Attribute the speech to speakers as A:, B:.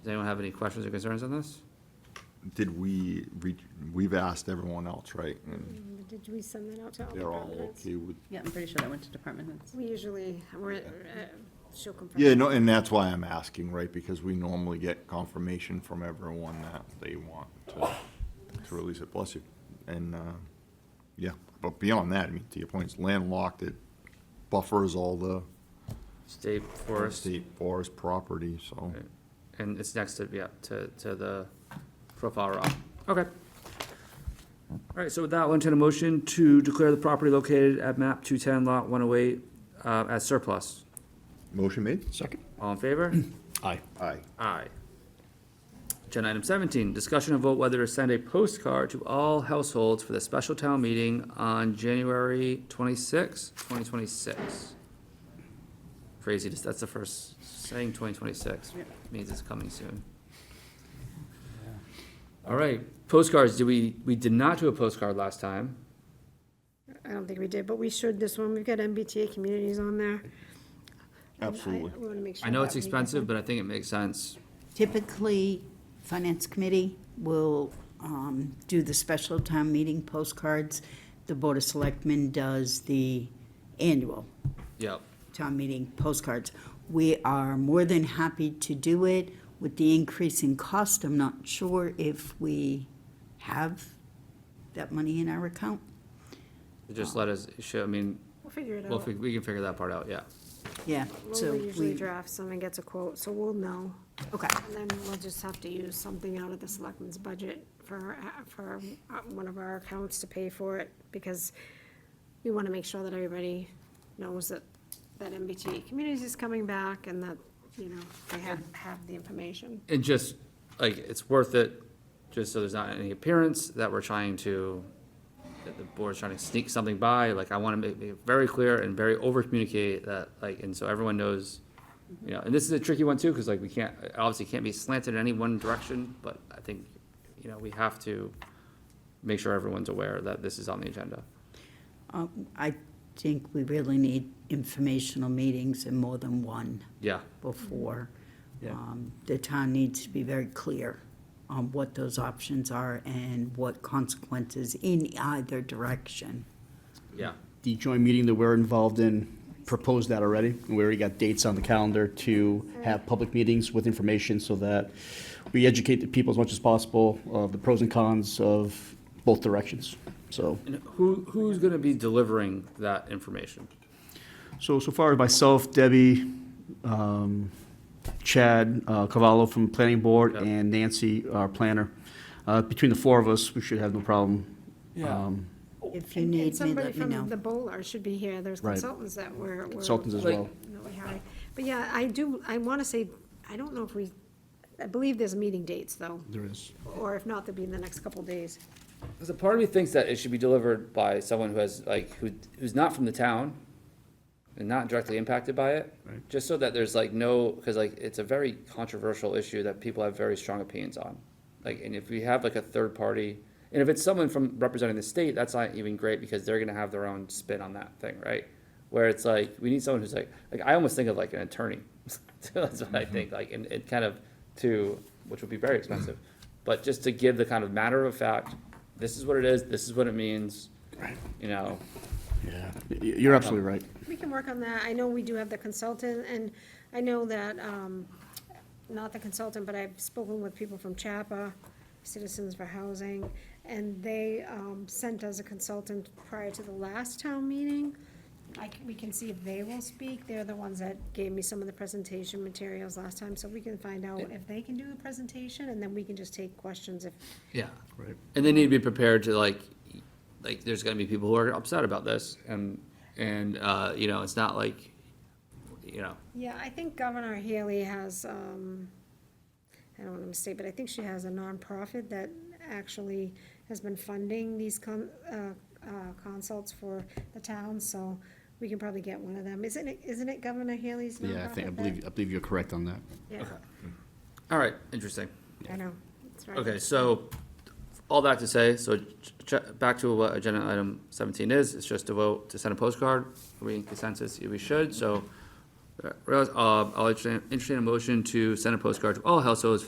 A: Does anyone have any questions or concerns on this?
B: Did we, re- we've asked everyone else, right? And
C: Did we send that out to all
B: they're all
C: departments?
B: okay with,
D: Yeah, I'm pretty sure that went to department heads.
C: We usually, we're, uh, she'll confirm.
B: yeah, no, and that's why I'm asking, right? Because we normally get confirmation from everyone that they want to, to release it, bless you. And, uh, yeah, but beyond that, I mean, to your point, it's landlocked, it buffers all the
A: State Forest,
B: state forest property, so.
A: Right. and it's next to, yeah, to, to the profile rock. Okay. All right, so with that, I'll entertain a motion to declare the property located at map two-ten lot one-oh-eight, uh, as surplus.
B: Motion made?
E: Second.
A: All in favor?
E: Aye.
B: Aye.
A: Aye. Agenda item seventeen, discussion and vote whether to send a postcard to all households for the special town meeting on January twenty-sixth, twenty twenty-six. Crazy, just- that's the first, saying twenty twenty-six
D: Yeah.
A: means it's coming soon. All right, postcards, do we, we did not do a postcard last time.
C: I don't think we did, but we should this one. We've got MBTA communities on there.
B: Absolutely.
C: I want to make sure.
A: I know
C: that
A: it's
C: we-
A: expensive, but I think it makes sense.
F: Typically, Finance Committee will um, do the special town meeting postcards. The Board of Selectmen does the annual
A: Yep.
F: town meeting postcards. We are more than happy to do it. With the increase in cost, I'm not sure if we have that money in our account.
A: Just let us, show, I mean,
C: We'll figure it
A: well, if we,
C: out.
A: we can figure that part out, yeah.
F: Yeah, so
C: Lola usually
F: we,
C: drafts them and gets a quote, so we'll know.
F: okay,
C: And then we'll just have to use something out of the selectmen's budget for, uh, for uh, one of our accounts to pay for it, because we want to make sure that everybody knows that, that MBTA communities is coming back and that, you know, they have, have the information.
A: And just, like, it's worth it, just so there's not any appearance that we're trying to, that the board's trying to sneak something by, like, I wanna make, make it very clear and very over communicate that, like, and so everyone knows, you know, and this is a tricky one too, cause like, we can't, it obviously can't be slanted in any one direction, but I think, you know, we have to make sure everyone's aware that this is on the agenda.
F: Um, I think we really need informational meetings and more than one.
A: Yeah,
F: before.
A: Yeah.
F: Um, The town needs to be very clear on what those options are and what consequences in either direction.
A: yeah,
E: The joint meeting that we're involved in proposed that already. We already got dates on the calendar to have public meetings with information so that we educate the people as much as possible of the pros and cons of both directions. So,
A: and who, who's gonna be delivering that information?
E: so, so far, myself, Debbie, um, Chad uh, Cavallo from Planning Board,
A: Yeah.
E: and Nancy, our planner. Uh, Between the four of us, we should have no problem.
A: Yeah.
E: um,
F: If you
C: Oh, And-
F: need me, let me
C: Somebody from the
F: know.
C: Bowler should be here, there's
E: Right.
C: consultants that were. were-
E: Consultants as
A: Like-
E: well.
C: that we hired. But yeah, I do, I want to say, I don't know if we, I believe there's meeting dates, though,
E: There is.
C: or if not, they'll be in the next couple days.
A: Because a part of me thinks that it should be delivered by someone who has, like, who, who's not from the town and not directly impacted by it.
E: Right.
A: Just so that there's like no, because like, it's a very controversial issue that people have very strong opinions on. Like, and if we have like a third party, and if it's someone from representing the state, that's not even great because they're gonna have their own spin on that thing, right? Where it's like, we need someone who's like, like, I almost think of like an attorney. That's what I think, like, and it kind of to, which would be very expensive. But just to give the kind of matter of fact, this is what it is, this is what it means, you know,
E: Yeah, Y- you're absolutely right.
C: We can work on that. I know we do have the consultant, and I know that, um, not the consultant, but I've spoken with people from CHAPA, Citizens for Housing, and they, um, sent us a consultant prior to the last town meeting. I, c- we can see if they will speak. They're the ones that gave me some of the presentation materials last time, so we can find out if they can do a presentation, and then we can just take questions if,
A: Yeah.
E: Right.
A: And they need to be prepared to like, like, there's gonna be people who are upset about this and, and, uh, you know, it's not like, you know,
C: Yeah, I think Governor Haley has, um, I don't want to mistake, but I think she has a nonprofit that actually has been funding these con, uh, uh, consults for the town, so we can probably get one of them. Isn't it, isn't it Governor Haley's nonprofit?
E: Yeah, I think, I
C: that-
E: believe, I believe you're correct on that.
C: Yeah,
A: all right, interesting.
C: I know, that's right.
A: Okay, so, all that to say, so ch- ch- back to what agenda item seventeen is, it's just a vote to send a postcard. Are we in consensus? Yeah, We should, so, uh, realize- uh, I'll entertain, entertain a motion to send a postcard to all households